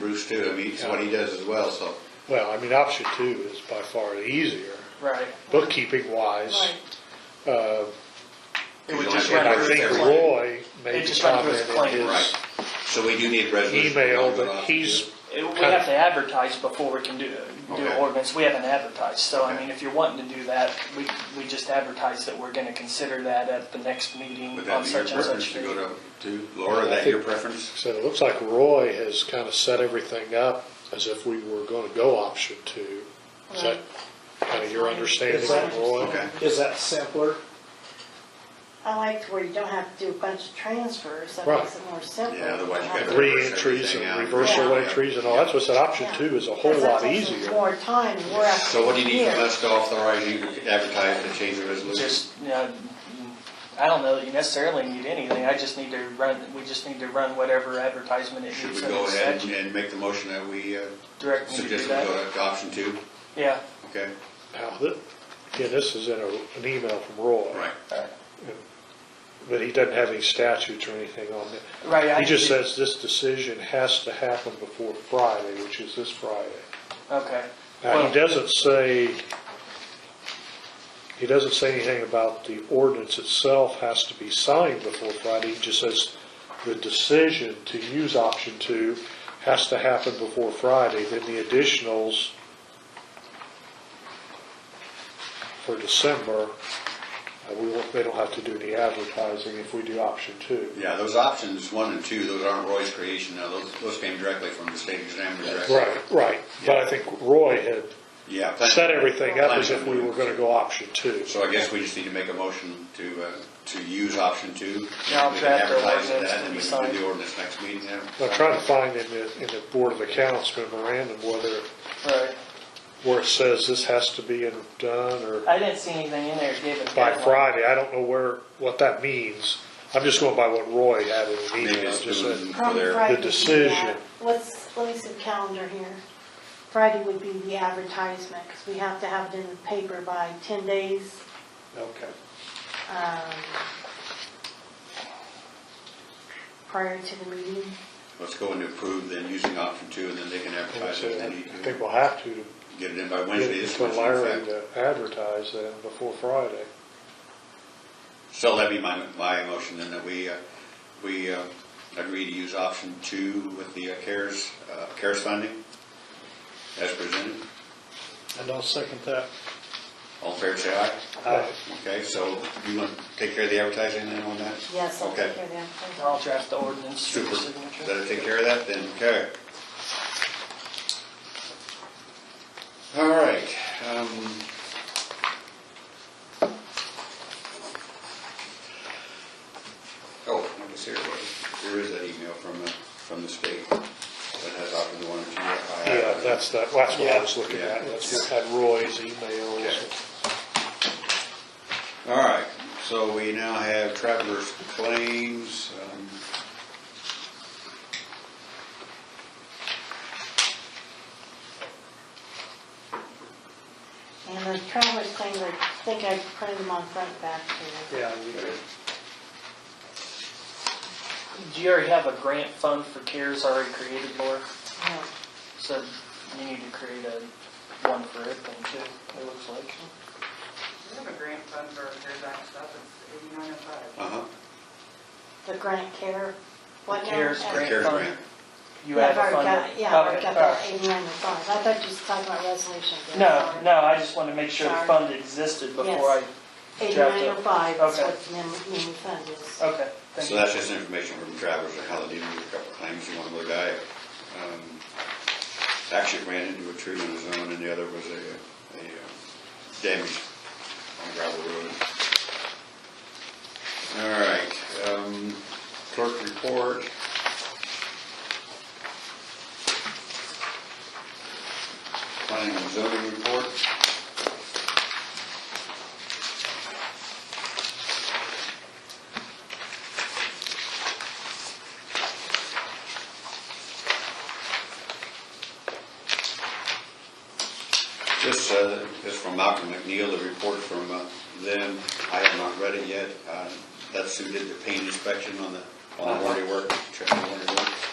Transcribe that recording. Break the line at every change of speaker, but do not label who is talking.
too, I mean, it's what he does as well, so.
Well, I mean, option two is by far the easier,
Right.
bookkeeping wise.
Right.
Uh,
It would just
And
run
I
through
think
their claim.
Roy
It
made the
just went through
comment
his
in
claim.
his
Right. So we do need a resolution.
email that he's,
It- We have to advertise before we can do, do
Okay.
an ordinance. We haven't advertised, so I
Okay.
mean, if you're wanting to do that, we, we just advertise that we're gonna consider that at the next meeting
Would
on
that be your
such and
preference
such
to
date.
go to, to Laura,
I
is that your
think-
preference?
said, it looks like Roy has kind of set everything up as if we were going to go option two. Is that
Right.
kind of your understanding
That's my
of Roy?
Okay.
Is that simpler?
I like where you don't have to do a bunch of transfers, that
Right.
makes it more simple.
Yeah, otherwise you gotta-
Re-entries and reversal
Yeah.
entries and all, that's what I said, option two is a whole
Because that
lot
takes us
easier.
More time, and we're after.
So what do you need from
here.
us to authorize you to advertise and change the resolution?
Just, you know, I don't know that you necessarily need anything. I just need to run, we just need to run whatever advertisement it
Should
needs.
we
under
go ahead
statute.
and make the motion that we uh,
Direct me to do
suggest we
that.
go to option two?
Yeah.
Okay,
Now, th- Again, this is in a, an email from Roy.
right.
But he doesn't have any statutes or anything on it.
Right. I
He just
did-
says this decision has to happen before Friday, which is this Friday.
Okay.
Now,
Well-
uh, he doesn't say, he doesn't say anything about the ordinance itself has to be signed before Friday. He just says the decision to use option two has to happen before Friday. Then the additionals for December, uh, we won't, they don't have to do any advertising if we do option two.
Yeah, those options, one and two, those aren't Roy's creation, now those, those came directly from the state examiner directly.
Right, right. But I think Roy had
Yeah.
set everything up as if we were gonna go option two.
So I guess we just need to make a motion to, uh, to use option two.
Yeah, I'll
We can
draft the
advertise
ordinance
that,
to
and
be
we can
signed.
Do the ordinance next meeting then.
I'm trying to find in the, in the Board of Accounts memorandum whether,
Right.
where it says this has to be done or
I didn't see anything in there given.
by Friday. I don't know where, what that means. I'm just going by what Roy had in the
Maybe
email,
it's
just
doing
said,
for
Probably
their,
Friday.
The
would be
decision.
that. Let's, let me see the calendar here. Friday would be the advertisement, because we have to have it in the paper by 10 days.
okay.
um, prior to the meeting.
let's go into approve then using option two and then they can
And I
advertise it.
said,
and
I
then you
think
can
we'll have to, to
Get it in by
get
Wednesday,
it
this
to
Wednesday. in
Larry
fact.
to advertise then before Friday.
So that'd be my, my motion then that we, uh, we uh, agree to use option two with the uh, CARES, uh, CARES funding as presented.
And I'll second that.
All fair say aye. Okay, so you want to take care of the advertising then on that?
Yes, I'll
Okay.
take care of that.
I'll draft the ordinance for your
Super.
signature.
That'll take care of that then, okay. All right. um, Oh, I guess here, it was. there is that email from, the from the state that has offered the one or two. I- I-
Yeah, that's, that- that's what I was looking
Yeah.
at. That's what had Roy's emails.
Okay. All right, so we now have travelers claims. um,
And the traveler's claims, I think I printed them on front and back here.
Yeah.
Do you already have a grant fund for CARES already created, Laura?
No.
So you need to create a one for it then too, it looks like.
We have a grant fund for CARES Act stuff, it's eighty-nine oh five.
Uh-huh.
The grant care, what now?
CARES
Uh,
grant
CARES
fund.
grant.
You have a
I've already
fund.
got- Yeah, I've already
Okay,
got
all
that
right.
eighty-nine and five. I thought you was talking about resolution.
No, no, I just wanted to make sure the
Sorry.
fund existed before I,
Yes. Eighty-nine oh five is
Okay.
what the mem- memo fund is.
okay, thank
So
you.
that's just information from Travers on how they deal with a couple of claims, and one of the guy, um, actually ran into a tree on his own, and the other was a, a uh, damage on gravel road. All right, um, clerk report, planning and zoning report, This uh, is from Malcolm McNeil, the report from uh, them. I have not read it yet. Uh, That's who did the paint inspection on the, on the warranty work, check the warranty work.